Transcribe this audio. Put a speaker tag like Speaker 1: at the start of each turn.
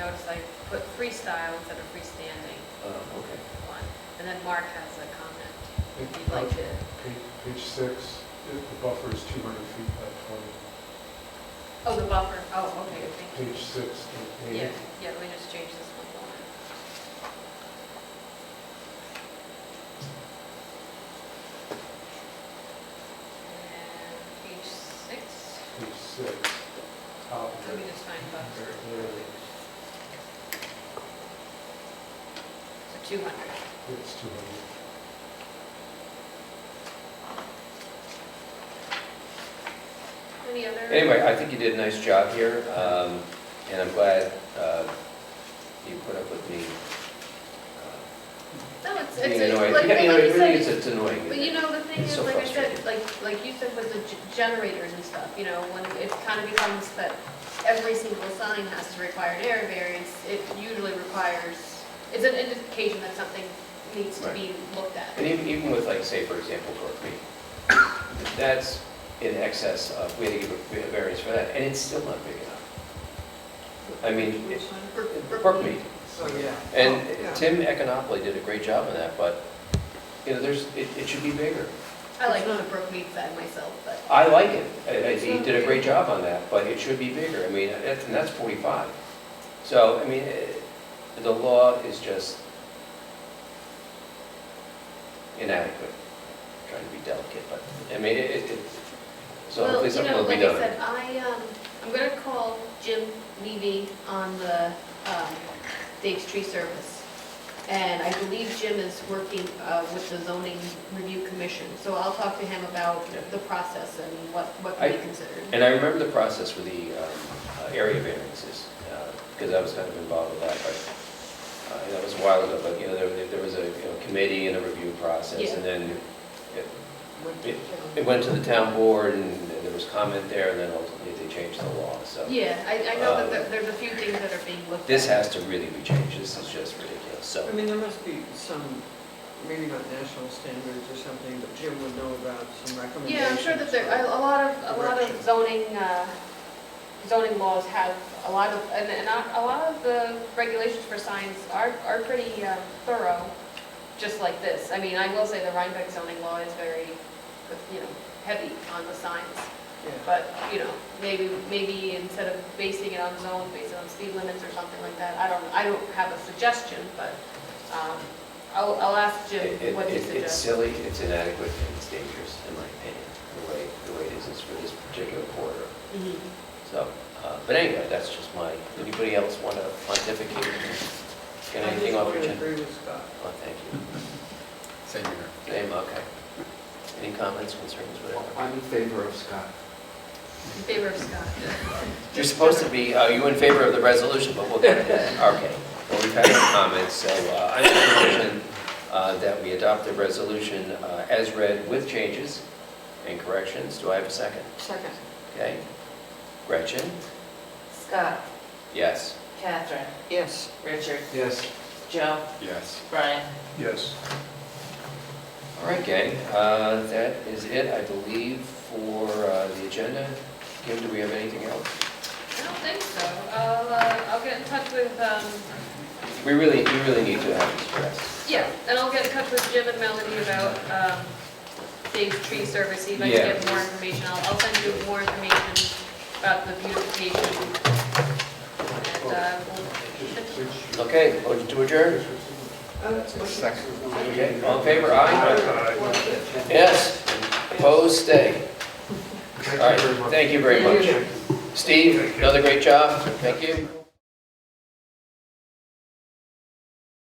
Speaker 1: uh, I put freestyle instead of freestanding
Speaker 2: Um, okay.
Speaker 1: one. And then Mark has a comment. If you'd like to,
Speaker 3: Page, page six, the- the buffer is two hundred feet by
Speaker 1: oh, the buffer, oh, okay,
Speaker 3: twenty.
Speaker 1: thank you.
Speaker 3: Page six, the
Speaker 1: Yeah,
Speaker 3: page.
Speaker 1: yeah, let me just change this one more. And page six,
Speaker 3: page six, top of
Speaker 1: let me
Speaker 3: it.
Speaker 1: just find buffer.
Speaker 3: Yeah,
Speaker 1: So 200.
Speaker 3: It's two hundred.
Speaker 1: Any other?
Speaker 2: Anyway, I think you did a nice job here, um, and I'm glad uh, you put up with me uh,
Speaker 1: No, it's, it's,
Speaker 2: being
Speaker 1: it's
Speaker 2: annoyed.
Speaker 1: like,
Speaker 2: Yeah, you know,
Speaker 1: like you
Speaker 2: it really is,
Speaker 1: said,
Speaker 2: it's annoying.
Speaker 1: but you know, the thing
Speaker 2: It's
Speaker 1: is,
Speaker 2: so
Speaker 1: like I said,
Speaker 2: frustrating.
Speaker 1: like, like you said with the g- generators and stuff, you know, when it kind of becomes that every single sign has to require an area variance, it usually requires, it's an indication that something needs to
Speaker 2: Right.
Speaker 1: be looked
Speaker 2: And
Speaker 1: at.
Speaker 2: even, even with like, say, for example, Torque Creek, that's in excess of, we had to give a- a variance for that, and it's still not big enough. I mean, it-
Speaker 1: For- for-
Speaker 2: Brook Mead.
Speaker 4: So, yeah.
Speaker 2: And
Speaker 4: Oh, yeah.
Speaker 2: Tim Econopoli did a great job on that, but, you know, there's, it, it should be bigger.
Speaker 1: I like the Brook Mead side myself, but,
Speaker 2: I like it, I- I- he did a great job on that, but it should be bigger, I mean, that's- and that's 45. So, I mean, eh, the law is just inadequate, trying to be delicate, but, I mean, it, it, it- so
Speaker 1: well,
Speaker 2: hopefully
Speaker 1: you
Speaker 2: something
Speaker 1: know,
Speaker 2: will be
Speaker 1: like I
Speaker 2: done.
Speaker 1: said, I, um, I'm gonna call Jim Levy on the, um, Dave's Tree Service. And I believe Jim is working uh, with the zoning review commission, so I'll talk to him about
Speaker 2: Yeah.
Speaker 1: the process and what, what can be
Speaker 2: I-
Speaker 1: considered.
Speaker 2: And I remember the process for the um, uh, area variances, because I was kind of involved with that, but, uh, and that was a while ago, but, you know, there, there was a, you know, committee and a review process,
Speaker 1: Yeah.
Speaker 2: and then it-
Speaker 4: Went to
Speaker 2: it-
Speaker 4: town.
Speaker 2: It went to the town board, and there was comment there, and then ultimately they changed the law, so.
Speaker 1: Yeah, I, I know that there-
Speaker 2: uh, Um,
Speaker 1: there's a few things that are being looked at.
Speaker 2: This has to really be changed, this is just ridiculous, so.
Speaker 4: I mean, there must be some, maybe not national standards or something, but Jim would know about some recommendations.
Speaker 1: Yeah, I'm sure that there, a a lot of, a lot of
Speaker 4: Direction.
Speaker 1: zoning, uh, zoning laws have a lot of, and, and a a lot of the regulations for signs are, are pretty uh, thorough, just like this. I mean, I will say the Rhinebeck zoning law is very, you know, heavy on the signs.
Speaker 4: Yeah.
Speaker 1: But, you know, maybe, maybe instead of basing it on zones, base it on speed limits or something like that. I don't, I don't have a suggestion, but, um, I'll, I'll ask Jim
Speaker 2: It- it-
Speaker 1: what he
Speaker 2: it- It's
Speaker 1: suggests.
Speaker 2: silly, it's inadequate, and it's dangerous, in my opinion, the way, the way it is, is for this particular quarter.
Speaker 1: Mhm.
Speaker 2: So, uh, but anyway, that's just my, anybody else want to pontificate? Get anything off your
Speaker 4: I just
Speaker 2: chin?
Speaker 4: would agree with Scott.
Speaker 2: Oh, thank you.
Speaker 5: Same here.
Speaker 2: Name, okay. Any comments, concerns, whatever?
Speaker 5: I'm in favor of Scott.
Speaker 1: In favor of Scott.
Speaker 2: You're supposed to be, are you in favor of the resolution, but we'll get to that. Okay. Well, we've had no comments, so uh, I make a motion uh, that we adopt the resolution uh, as read with changes and corrections. Do I have a second?
Speaker 6: Second.
Speaker 2: Okay. Gretchen?
Speaker 6: Scott,
Speaker 2: Yes.
Speaker 6: Catherine,
Speaker 4: Yes,
Speaker 6: Richard,
Speaker 5: Yes.
Speaker 6: Joe,
Speaker 5: Yes.
Speaker 6: Brian.
Speaker 3: Yes.
Speaker 2: All right, gang, Uh, that is it, I believe, for uh, the agenda. Kim, do we have anything else?
Speaker 1: I don't think so. I'll, uh, I'll get in touch with, um,
Speaker 2: We really, we really need to have this addressed.
Speaker 1: yeah, and I'll get in touch with Jim and Melody about um, Dave's tree service, see if I can get more information. I'll, I'll send you more information about the beautification. And uh,
Speaker 2: Okay, motion to adjourn? Okay, all in favor, aye? Yes, opposed, stay. All right, thank you very much. Steve, another great job, thank you.